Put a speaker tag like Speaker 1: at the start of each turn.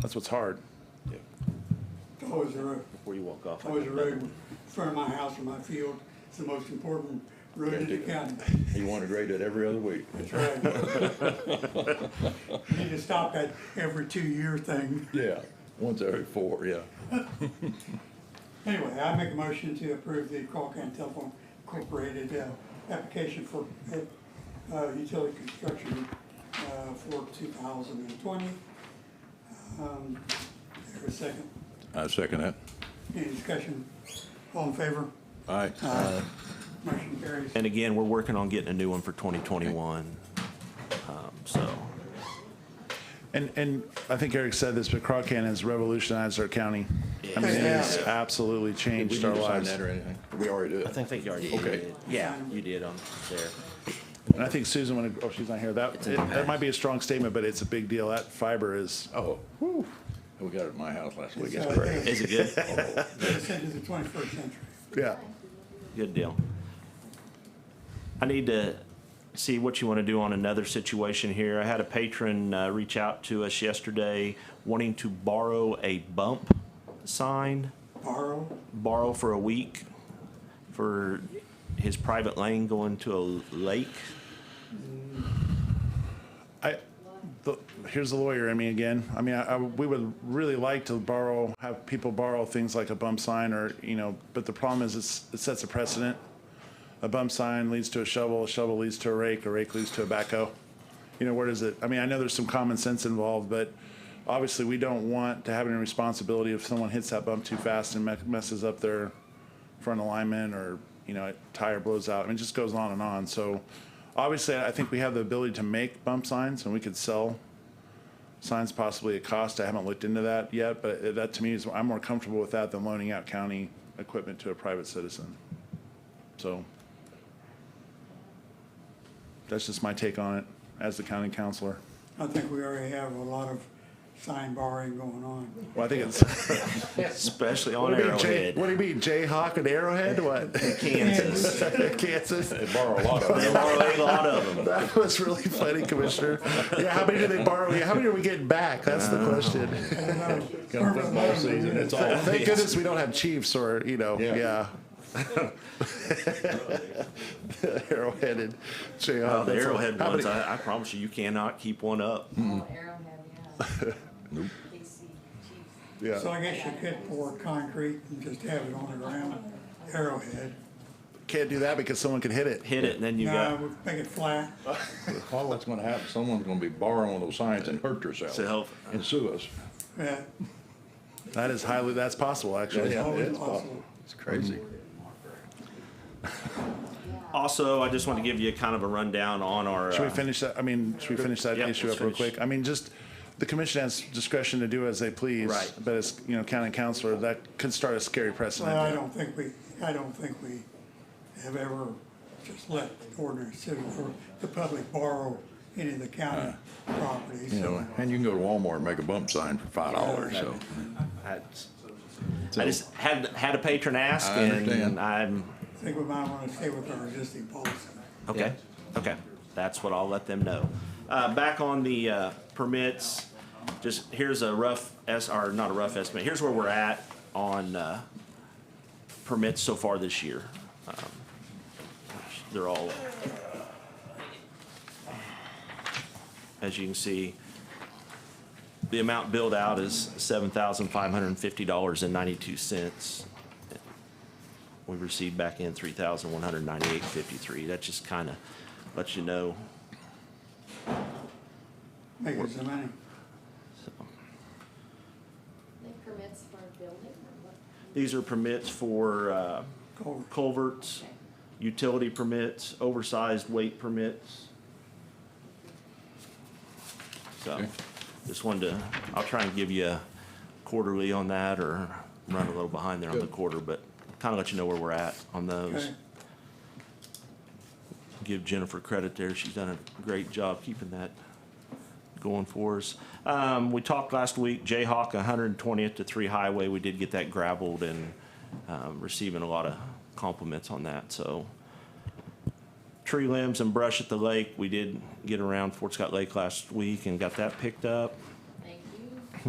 Speaker 1: That's what's hard,
Speaker 2: Towards the road,
Speaker 1: before you walk off.
Speaker 2: towards the road, in front of my house or my field, it's the most important road in the county.
Speaker 3: You want to grade it every other week.
Speaker 2: That's right. We Need to stop that every two-year thing.
Speaker 3: Yeah, once every four, yeah.
Speaker 2: Anyway, I make a motion to approve the Colcan Telephone Incorporated, uh, application for, uh, utility construction, uh, for two thousand and twenty. Um, there a second,
Speaker 3: I second that.
Speaker 2: any discussion, all in favor?
Speaker 3: Aye.
Speaker 2: Motion carries.
Speaker 4: And again, we're working on getting a new one for 2021. Um, So,
Speaker 1: And, and I think Eric said this, but Crawcan has revolutionized our county. I mean, it has absolutely
Speaker 3: Did we
Speaker 1: changed our
Speaker 3: need to sign
Speaker 1: lives.
Speaker 3: that or anything? We already did.
Speaker 4: I think they already
Speaker 3: Okay.
Speaker 4: did. Yeah, you did on there.
Speaker 1: And I think Susan, when, oh, she's not here, that,
Speaker 4: in the
Speaker 1: that
Speaker 4: past.
Speaker 1: might be a strong statement, but it's a big deal. That fiber is,
Speaker 3: Oh, we got it at my house last week.
Speaker 2: So,
Speaker 3: It's great.
Speaker 4: Is it good?
Speaker 2: They said it's the twenty-first century.
Speaker 1: yeah.
Speaker 4: Good deal. I need to see what you want to do on another situation here. I had a patron uh, reach out to us yesterday wanting to borrow a bump sign,
Speaker 2: Borrow,
Speaker 4: borrow for a week for his private lane going to a lake.
Speaker 1: I, the, here's the lawyer in me again. I mean, I, I- we would really like to borrow, have people borrow things like a bump sign or, you know, but the problem is it's, it sets a precedent. A bump sign leads to a shovel, a shovel leads to a rake, a rake leads to a backhoe. You know, where does it, I mean, I know there's some common sense involved, but obviously we don't want to have any responsibility if someone hits that bump too fast and me- messes up their front alignment or, you know, a tire blows out. I mean, it just goes on and on. So obviously, I think we have the ability to make bump signs and we could sell signs possibly at cost. I haven't looked into that yet, but that to me is, I'm more comfortable with that than loaning out county equipment to a private citizen. So that's just my take on it as the county counselor.
Speaker 2: I think we already have a lot of sign borrowing going on.
Speaker 1: Well, I think it's,
Speaker 4: Especially on
Speaker 1: what do you mean, Jay,
Speaker 4: Arrowhead,
Speaker 1: what do you mean, Jayhawk and Arrowhead, what?
Speaker 4: Kansas.
Speaker 1: Kansas?
Speaker 3: They borrow a lot of
Speaker 4: They
Speaker 3: it.
Speaker 4: borrow a lot of them.
Speaker 1: That was really funny, Commissioner. Yeah, how many do they borrow? Yeah, how many are we getting back? That's the question.
Speaker 3: Come football season, it's
Speaker 4: Oh,
Speaker 3: all.
Speaker 1: Thank goodness we don't have chiefs or, you know,
Speaker 3: Yeah.
Speaker 1: yeah. Arrowheaded. Jayhawk.
Speaker 4: Oh, the
Speaker 1: That's-
Speaker 4: Arrowhead
Speaker 1: how
Speaker 4: ones,
Speaker 1: many-
Speaker 4: I, I promise you, you cannot keep one up.
Speaker 5: Oh, Arrowhead, yeah. KC Chiefs.
Speaker 2: So
Speaker 1: Yeah,
Speaker 2: I guess you could pour concrete and just have it on the ground, arrowhead.
Speaker 1: can't do that because someone could hit it.
Speaker 4: Hit it, and then you
Speaker 2: Now,
Speaker 4: got
Speaker 2: we make it flat.
Speaker 3: All that's gonna happen, someone's gonna be borrowing one of those signs and hurt
Speaker 4: to
Speaker 3: herself
Speaker 4: help.
Speaker 3: and sue us.
Speaker 2: Yeah,
Speaker 1: That is highly, that's possible, actually.
Speaker 3: Yeah, yeah.
Speaker 2: always
Speaker 3: it's
Speaker 2: possible.
Speaker 3: It's crazy.
Speaker 4: Also, I just want to give you kind of a rundown on our.
Speaker 1: Should we
Speaker 4: uh,
Speaker 1: finish that, I mean, should we finish that
Speaker 4: Yeah,
Speaker 1: issue
Speaker 4: let's
Speaker 1: up real
Speaker 4: finish.
Speaker 1: quick? I mean, just, the commission has discretion to do as they please.
Speaker 4: Right.
Speaker 1: But as, you know, county counselor, that could start a scary precedent.
Speaker 2: Well, I don't think we, I don't think we have ever just let ordinary citizens or the public borrow any of the county property.
Speaker 3: You
Speaker 2: So
Speaker 3: know, and you can go to Walmart and make a bump sign for five dollars, so.
Speaker 4: I I just had, had a patron ask
Speaker 3: I
Speaker 4: and
Speaker 3: understand.
Speaker 4: I'm,
Speaker 2: I think we might want to stay with our existing policy.
Speaker 4: okay, okay. That's what I'll let them know. Uh, back on the, uh, permits, just, here's a rough S, or not a rough estimate, here's where we're at on, uh, permits so far this year. Um, They're all. As you can see, the amount billed out is seven thousand five hundred and fifty dollars and ninety-two cents. We received back in three thousand one hundred ninety-eight fifty-three. That just kind of lets you know.
Speaker 2: Make it some money.
Speaker 4: so.
Speaker 5: They permits for building or what?
Speaker 4: These are permits for uh,
Speaker 2: Culvert.
Speaker 4: culverts, utility permits, oversized weight permits. So,
Speaker 3: Okay.
Speaker 4: just wanted to, I'll try and give you a quarterly on that or run a little behind there on the
Speaker 3: Good.
Speaker 4: quarter, but kind of let you know where we're at on those.
Speaker 2: Okay.
Speaker 4: give Jennifer credit there. She's done a great job keeping that going for us. Um, we talked last week, Jayhawk, 120th to 3 Highway. We did get that gravelled and um, receiving a lot of compliments on that. So tree limbs and brush at the lake. We did get around Fort Scott Lake last week and got that picked up.